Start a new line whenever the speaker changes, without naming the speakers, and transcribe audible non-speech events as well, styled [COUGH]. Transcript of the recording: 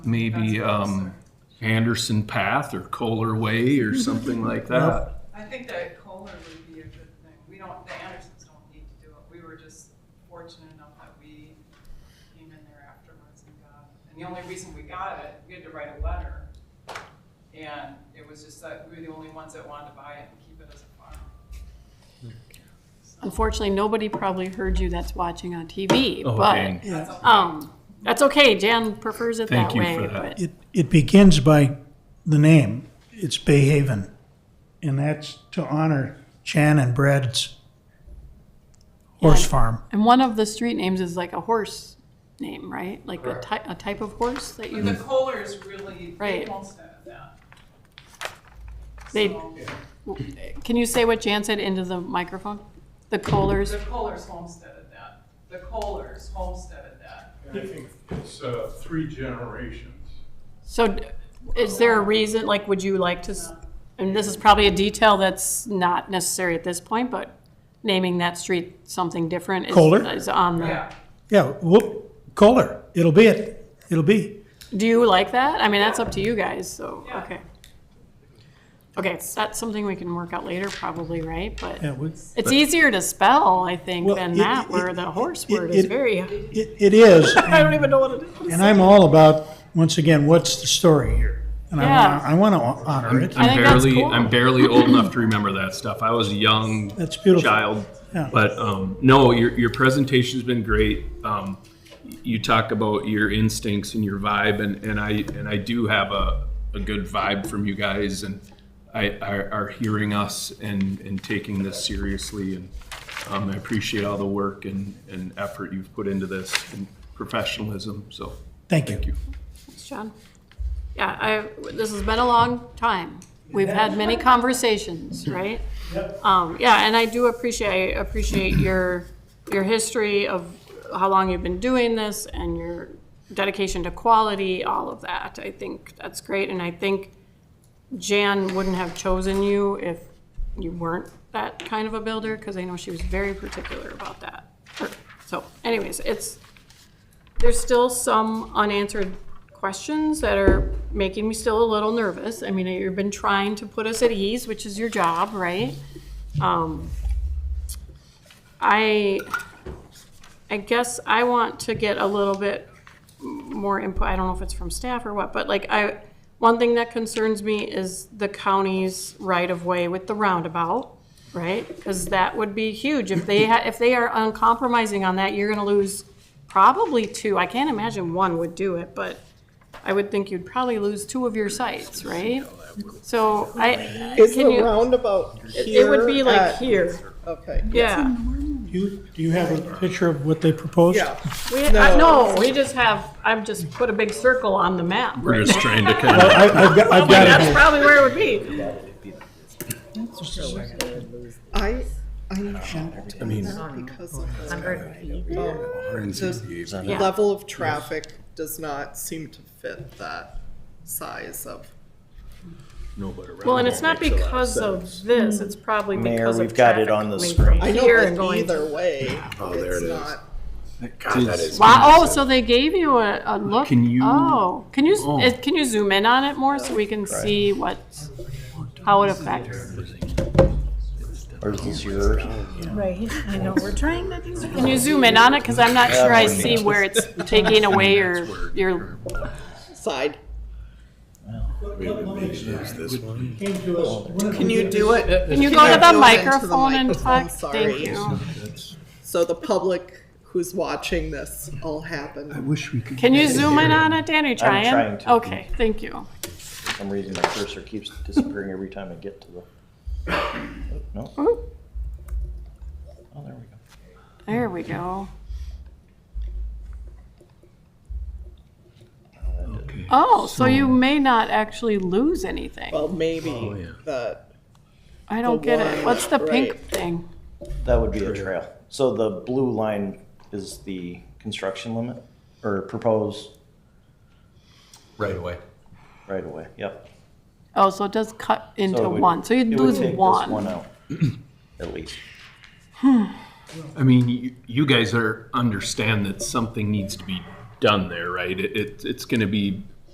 maybe um, Anderson Path or Kohler Way or
Mm-hmm.
something like that.
I think that Kohler would be a good thing. We don't, the Andersons don't need to do it. We were just fortunate enough that we came in there afterwards and got it. And the only reason we got it, we had to write a letter. And it was just that we were the only ones that wanted to buy it and keep it as a farm.
Unfortunately, nobody probably heard you that's watching on TV,
Oh,
but,
dang.
That's
Yeah,
all.
um, that's okay, Jan prefers it
Thank
that
you
way,
for that.
but,
it, it begins by the name. It's Bay Haven. And that's to honor Chan and Brad's horse
Yeah.
farm.
and one of the street names is like a horse name, right? Like a ty- a type of horse that
But the
you,
Kohlers really, they
Right.
won't stand that.
They-
So,
can you say what Jan said into the microphone? The Kohlers,
The Kohlers homesteaded that. The Kohlers homesteaded that.
And I think it's uh, three generations.
so d- is there a reason, like, would you like to, s- and this is probably a detail that's not necessary at this point, but naming that street something different is,
Kohler?
is on the,
Yeah,
Yeah, whoop, Kohler, it'll be it. It'll be.
do you like that? I mean, that's up to you guys, so,
Yeah.
okay. Okay, it's, that's something we can work out later probably, right? But
Yeah, we-
It's easier to spell, I think,
Well,
than
it-
that,
it-
where the horse
it-
word is
it-
very,
It, it is.
[LAUGHS] I don't even know what it is.
And I'm all about, once again, what's the story here? And I wanna, I wanna honor it.
I
I'm
think that's
barely
cool.
I'm barely old enough to remember that stuff. I was a young
That's beautiful.
child.
Yeah.
But um, no, your your presentation's been great. Um, you talk about your instincts and your vibe, and, and I and I do have a, a good vibe from you guys, and I are, are hearing us and, and taking this seriously, and um, I appreciate all the work and, and effort you've put into this and professionalism. So
Thank
thank
you.
you.
John? Yeah, I, this has been a long time. We've had many conversations, right? Um, yeah, and I do appreciate, I appreciate your, your history of how long you've been doing this and your dedication to quality, all of that. I think that's great, and I think Jan wouldn't have chosen you if you weren't that kind of a builder, because I know she was very particular about that. So anyways, it's, there's still some unanswered questions that are making me still a little nervous. I mean, you've been trying to put us at ease, which is your job, right? Um, I, I guess I want to get a little bit more input. I don't know if it's from staff or what, but like I, one thing that concerns me is the county's right-of-way with the roundabout, right? Because that would be huge. If they, ha- if they are uncompromising on that, you're gonna lose probably two. I can't imagine one would do it, but I would think you'd probably lose two of your sites, right? So I,
Is
can
the
you,
roundabout
it
here?
would be like
at-
here,
Okay,
yeah.
You, do you have a picture of what they proposed?
yeah.
We, I,
No.
no, we just have, I've just put a big circle on the map.
We're just trying to kind
I, I've got, I've got it
That's
here.
probably where it would be.
I, I'm shocked at that because of the, um, the
Yeah.
level of traffic does not seem to fit that size of.
Well, and it's not because of this, it's probably
Mayor,
because of
we've got it
traffic
on the
coming
screen.
from
I know,
Here and
but
going.
either way, it's not.
Wow, oh, so they gave you a, a look?
Can you-
Oh, can you,
Oh.
eh, can you zoom in on it more so we can see what, how it affects?
Or is this yours?
Right, I know, we're trying to do
Can you zoom in on it? Cause I'm not
Yeah,
sure I
one
see
minute.
where it's taking away
[LAUGHS]
your, your,
Side.
Came to us with-
Can you do it?
can you go to
Zoom
the
into the
microphone and
microphone,
talk? Thank
sorry.
you.
So the public who's watching this all happen.
Wish we could.
Can you zoom in on it, Dan? Are you trying?
trying to.
Okay, thank you.
For some reason, my cursor keeps disappearing every time I get to the. No? Oh, there we go.
There we go. Oh, so you may not actually lose anything.
Well, maybe that
I don't get it.
one,
What's the pink
right.
thing?
That would be a trail. So the blue line is the construction limit or proposed
right away.
right away. Yep.
Oh, so it does cut
So
into
it would-
one, so you'd
it would
lose
take this One
one.
out, at least.
I mean, you, you guys are understand that something needs to be done there, right? It, it it's going to be